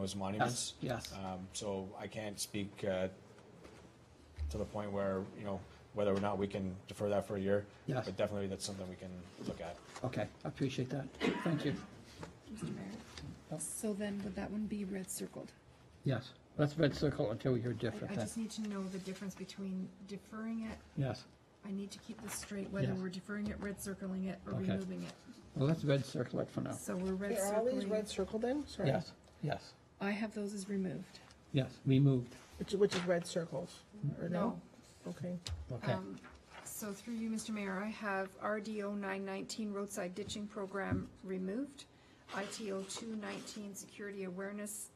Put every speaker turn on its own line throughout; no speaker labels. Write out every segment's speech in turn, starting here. those monuments.
yes. Uh,
Um, So I can't speak uh, to the point where, you know, whether or not we can defer that for a year.
Yes.
But definitely that's something we can look at.
Okay, I appreciate that. Thank you.
Mr. Mayor.
Yep.
So then would that one be red circled?
Yes, let's red circle until we hear different
I
then.
just need to know the difference between deferring it,
Yes,
I need to keep this straight, whether
Yes.
we're deferring it, red circling it, or
Okay. Oh.
removing it.
well, let's red circle it for now.
So we're red
Are all these
circling,
red circled then? Sorry.
Yes, yes,
I have those as removed.
yes, we moved,
Which, which is red circles, or no?
no.
Okay.
okay.
Um, So through you, Mr. Mayor, I have RDO nine nineteen roadside ditching program removed, ITO two nineteen security awareness,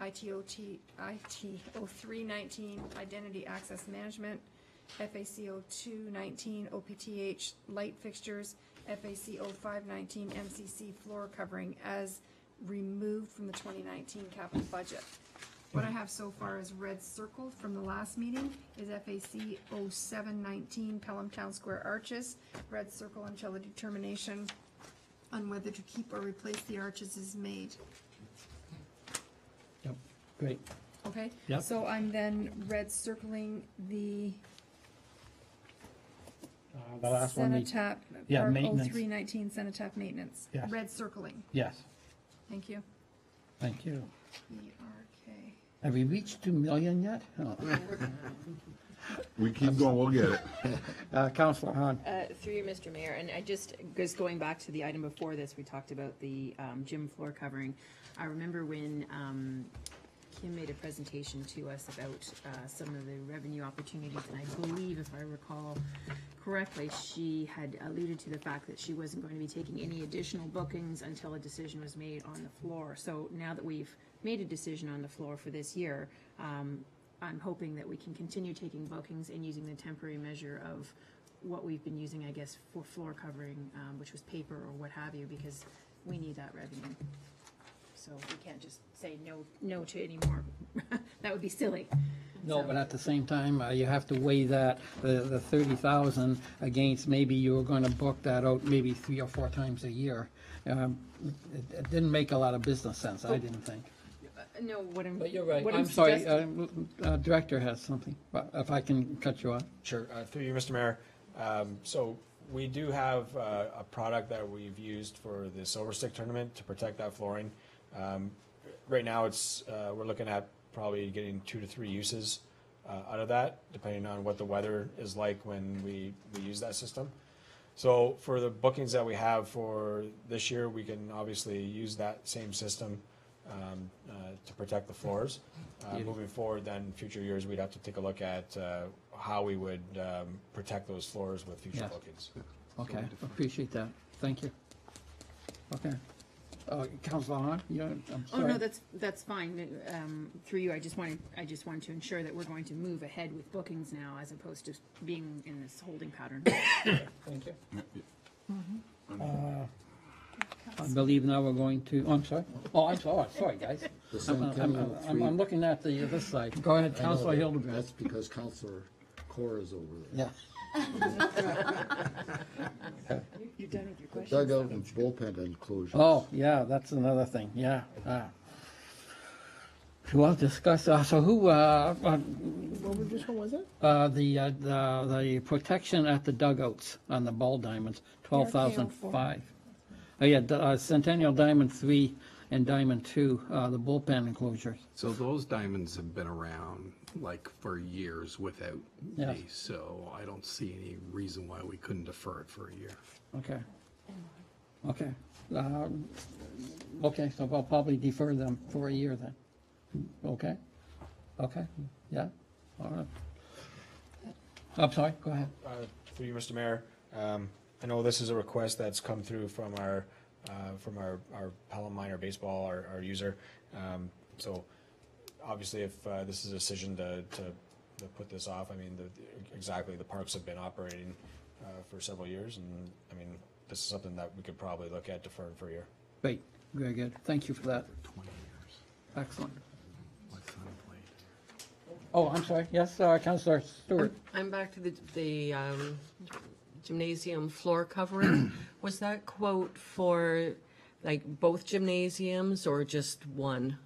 ITO T, ITO three nineteen identity access management, FACO two nineteen OPTH light fixtures, FACO five nineteen MCC floor covering as removed from the twenty nineteen capital budget. What I have so far is red circled from the last meeting is FAC 0719 Pelham Town Square Arches. Red circle until a determination on whether to keep or replace the arches is made.
Yep, great,
Okay?
Yep.
So I'm then red circling the
Uh, the last one, we-
Cenotaph,
Yeah,
or
maintenance.
0319 Cenotaph Maintenance.
Yes.
Red circling.
yes,
Thank you. E
thank you.
ERK.
Have we reached two million yet? Oh. No.
We keep going, we'll get it.
Uh, Counselor Hahn,
Uh, Through you, Mr. Mayor, and I just, just going back to the item before this, we talked about the um, gym floor covering. I remember when um, Kim made a presentation to us about uh, some of the revenue opportunities, and I believe, if I recall correctly, she had alluded to the fact that she wasn't going to be taking any additional bookings until a decision was made on the floor. So now that we've made a decision on the floor for this year, um, I'm hoping that we can continue taking bookings and using the temporary measure of what we've been using, I guess, for floor covering, um, which was paper or what have you, because we need that revenue. So we can't just say no, no to any more. That would be silly.
no, but at the same time, uh, you have to weigh that, the, the thirty thousand against maybe you were gonna book that out maybe three or four times a year. Um, it, it didn't make a lot of business sense,
Oh.
I didn't think.
Uh, No, what I'm.
But you're right,
what
I'm sorry,
suggesting-
um, uh, Director has something, but if I can cut you off.
Sure, uh, through you, Mr. Mayor. Um, So we do have uh, a product that we've used for the Silver Stick Tournament to protect that flooring. Um, Right now, it's, uh, we're looking at probably getting two to three uses uh, out of that, depending on what the weather is like when we, we use that system. So for the bookings that we have for this year, we can obviously use that same system um, uh, to protect the floors. Uh,
Yeah.
Moving forward, then, future years, we'd have to take a look at uh, how we would um, protect those floors with future
Yeah.
bookings.
Okay, appreciate that, thank you. Okay. Uh, Counselor Hahn, you, I'm
Oh, no,
sorry.
that's, that's fine. Um, Through you, I just wanted, I just wanted to ensure that we're going to move ahead with bookings now as opposed to being in this holding pattern.
Thank you.
Mm-hmm.
Uh, I
Council-
believe now we're going to, oh, I'm sorry, oh, I'm sorry, sorry, guys.
The
I'm,
San
I'm,
Camino
I'm-
three-
I'm looking at the, this side, go ahead,
I know
Counselor
that-
Hildebrand.
That's because Counselor Cora is over there.
Yeah,
You're done with your
The
question.
Dugout and bullpen enclosures.
oh, yeah, that's another thing, yeah, ah. Well, discuss, uh, so who, uh, uh,
What was, which one was it?
Uh, the, uh, the, the protection at the dugouts on the ball diamonds, twelve thousand five. Oh, yeah, the, uh, Centennial Diamond three and Diamond two, uh, the bullpen enclosures.
So those diamonds have been around like for years without
Yeah.
me, so I don't see any reason why we couldn't defer it for a year.
Okay. Okay. Um, Okay, so I'll probably defer them for a year then. Okay? Okay, yeah, all right. I'm sorry, go ahead.
Uh, Through you, Mr. Mayor, um, I know this is a request that's come through from our, uh, from our, our Pelham Minor Baseball, our, our user. Um, So obviously, if uh, this is a decision to, to, to put this off, I mean, the, exactly, the parks have been operating uh, for several years, and, I mean, this is something that we could probably look at deferring for a year.
Great, very good, thank you for that,
Twenty years.
excellent.
My son played.
Oh, I'm sorry, yes, uh, Counselor Stewart?
I'm back to the, the um, gymnasium floor covering. Was that quote for like both gymnasiums or just one?